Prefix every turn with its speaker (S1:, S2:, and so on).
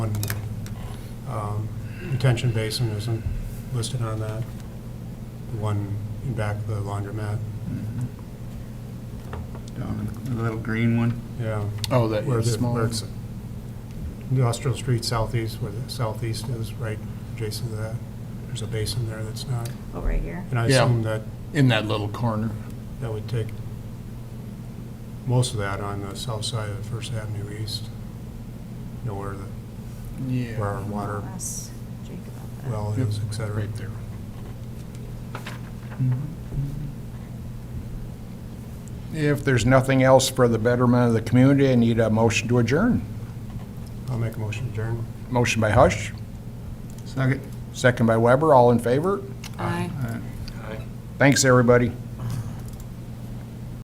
S1: detention Um, basin isn't listed on that, the one in back of the laundromat,
S2: Down in the little green one.
S1: yeah.
S3: Oh, that
S1: Where
S3: yeah,
S1: the,
S3: small.
S1: where it's industrial street southeast, where the southeast is, right adjacent to that, there's a basin there that's not,
S4: over Oh, here.
S1: and I
S3: Yeah.
S1: assume that,
S3: In that little corner.
S1: that would take most of that on the south side of First Avenue East, you know, where the, where our water
S4: Ask Jake about that.
S1: well
S3: Yep.
S1: is, et cetera.
S3: Right there.
S5: Mm-hmm. If there's nothing else for the betterment of the community, I need a motion to adjourn.
S1: I'll make a motion to adjourn.
S5: Motion by Hush,
S2: Second.
S5: second by Weber, all in favor?
S4: Aye.
S5: Thanks, everybody.